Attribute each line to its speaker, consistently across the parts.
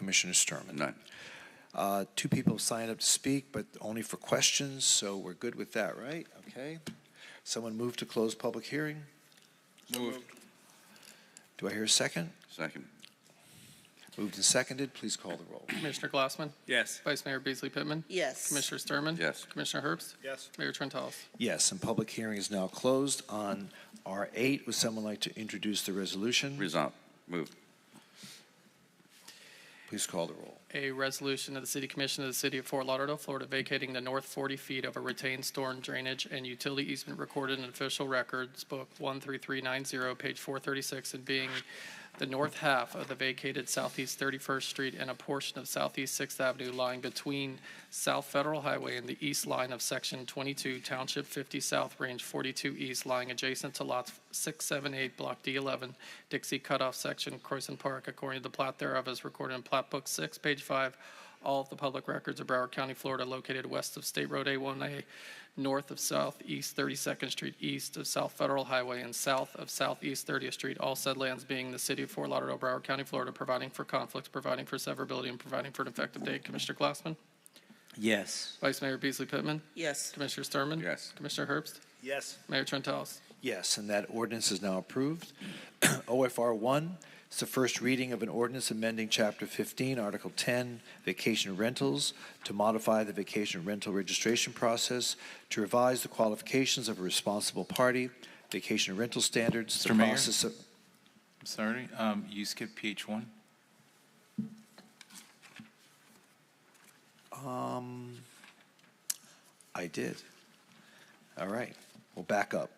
Speaker 1: Commissioner Sturman.
Speaker 2: None.
Speaker 1: Uh, Two people signed up to speak, but only for questions, so we're good with that, right? Okay. Someone move to close public hearing?
Speaker 2: Moved.
Speaker 1: Do I hear a second?
Speaker 2: Second.
Speaker 1: Moved and seconded, please call the roll.
Speaker 3: Commissioner Glassman?
Speaker 4: Yes.
Speaker 3: Vice Mayor Beasley Pittman?
Speaker 5: Yes.
Speaker 3: Commissioner Sturman?
Speaker 2: Yes.
Speaker 3: Commissioner Herbst?
Speaker 4: Yes.
Speaker 3: Mayor Trentalis?
Speaker 1: Yes, and public hearing is now closed on R8. Would someone like to introduce the resolution?
Speaker 2: Resolved. Moved.
Speaker 1: Please call the roll.
Speaker 3: A resolution of the City Commission of the City of Fort Lauderdale, Florida, vacating the north 40 feet of a retained storm drainage and utility easement recorded in official records book 13390, page 436, and being the north half of the vacated southeast 31st Street and a portion of southeast 6th Avenue lying between South Federal Highway and the east line of Section 22, Township 50 South, Range 42 East, lying adjacent to lots 678, Block D11, Dixie Cutoff Section, Croissant Park, according to the plat thereof as recorded in Plat Book 6, page 5. All of the public records of Broward County, Florida, located west of State Road A1A, north of Southeast 32nd Street, east of South Federal Highway, and south of Southeast 30th Street, all said lands being the city of Fort Lauderdale, Broward County, Florida, providing for conflicts, providing for severability, and providing for an effective date. Commissioner Glassman?
Speaker 6: Yes.
Speaker 3: Vice Mayor Beasley Pittman?
Speaker 5: Yes.
Speaker 3: Commissioner Sturman?
Speaker 2: Yes.
Speaker 3: Commissioner Herbst?
Speaker 4: Yes.
Speaker 3: Mayor Trentalis?
Speaker 1: Yes, and that ordinance is now approved. OFR 1, it's the first reading of an ordinance amending Chapter 15, Article 10, vacation rentals, to modify the vacation rental registration process, to revise the qualifications of a responsible party, vacation rental standards, the
Speaker 7: Mr. Mayor?
Speaker 1: process of...
Speaker 7: I'm sorry, um, you skipped PH one?
Speaker 1: Um, I did. All right, we'll back up.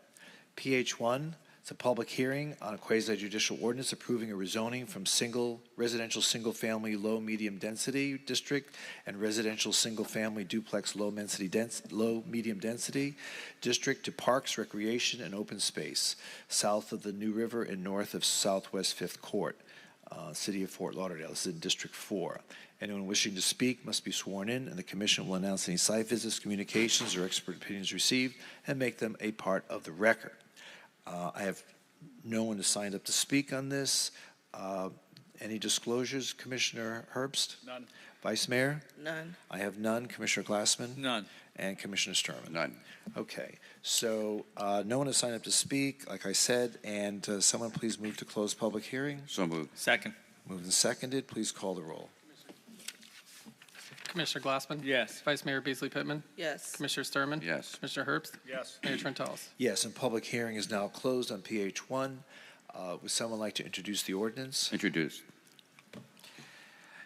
Speaker 1: PH one, it's a public hearing on a quasi judicial ordinance approving a rezoning from single residential, single-family, low, medium density district and residential, single-family duplex, low density, dense, low, medium density district to parks, recreation, and open space, south of the New River and north of Southwest Fifth Court, uh, city of Fort Lauderdale. This is in District Four. Anyone wishing to speak must be sworn in, and the commission will announce any site visits, communications, or expert opinions received and make them a part of the record. Uh, I have no one has signed up to speak on this. Uh, Any disclosures, Commissioner Herbst?
Speaker 4: None.
Speaker 1: Vice Mayor?
Speaker 5: None.
Speaker 1: I have none. Commissioner Glassman?
Speaker 4: None.
Speaker 1: And Commissioner Sturman?
Speaker 2: None.
Speaker 1: Okay, so uh, no one has signed up to speak, like I said, and uh, someone please move to close public hearing.
Speaker 2: So moved.
Speaker 4: Second.
Speaker 1: Moved and seconded, please call the roll.
Speaker 3: Commissioner Glassman?
Speaker 4: Yes.
Speaker 3: Vice Mayor Beasley Pittman?
Speaker 5: Yes.
Speaker 3: Commissioner Sturman?
Speaker 2: Yes.
Speaker 3: Commissioner Herbst?
Speaker 4: Yes.
Speaker 3: Mayor Trentalis?
Speaker 1: Yes, and public hearing is now closed on PH one. Uh, Would someone like to introduce the ordinance?
Speaker 2: Introduced.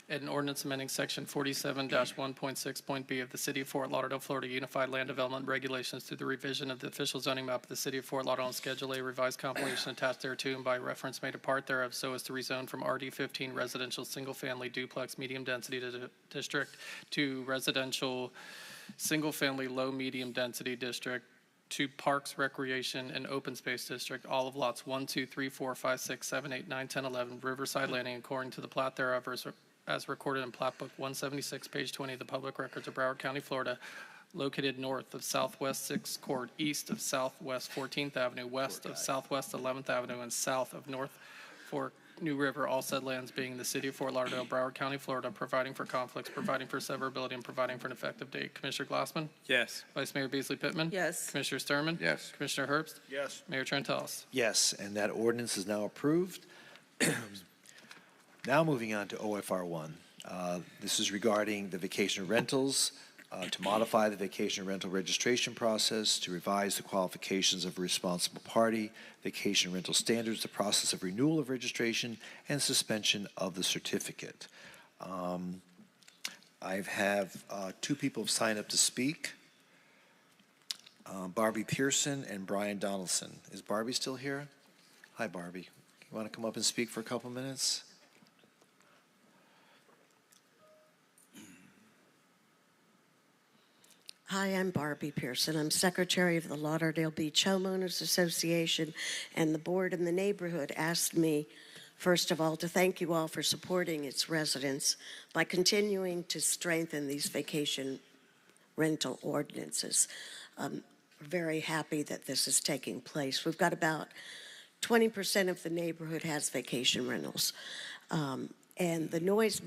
Speaker 3: An ordinance amending section forty-seven one point six point B of the City of Fort Lauderdale, Florida Unified Land Development Regulations through the revision of the official zoning map of the City of Fort Lauderdale and Schedule A revised compilation attached thereto and by reference made a part thereof so as to rezone from RD fifteen residential single-family duplex medium density di- district to residential single-family low-medium density district to Parks, Recreation, and Open Space District, all of lots 1, 2, 3, 4, 5, 6, 7, 8, 9, 10, 11, Riverside Landing, according to the plat thereof, as- as recorded in Plat Book 176, page 20, of the public records of Broward County, Florida, located north of Southwest 6th Court, east of Southwest 14th Avenue, west of Southwest 11th Avenue, and south of North Fork New River, all said lands being the city of Fort Lauderdale, Broward County, Florida, providing for conflicts, providing for severability, and providing for an effective date. Commissioner Glassman?
Speaker 4: Yes.
Speaker 3: Vice Mayor Beasley Pittman?
Speaker 5: Yes.
Speaker 3: Commissioner Sturman?
Speaker 2: Yes.
Speaker 3: Commissioner Herbst?
Speaker 4: Yes.
Speaker 3: Mayor Trentalis?
Speaker 1: Yes, and that ordinance is now approved. Now moving on to OFR one. Uh, This is regarding the vacation rentals, uh, to modify the vacation rental registration process, to revise the qualifications of a responsible party, vacation rental standards, the process of renewal of registration, and suspension of the certificate. Um, I've have, uh, two people have signed up to speak. um, Barbie Pearson and Brian Donaldson. Is Barbie still here? Hi, Barbie. You want to come up and speak for a couple minutes?
Speaker 8: Hi, I'm Barbie Pearson. I'm Secretary of the Lauderdale Beach Homeowners Association, and the board in the neighborhood asked me, first of all, to thank you all for supporting its residents by continuing to strengthen these vacation rental ordinances. I'm very happy that this is taking place. We've got about 20% of the neighborhood has vacation rentals. Um, And the noise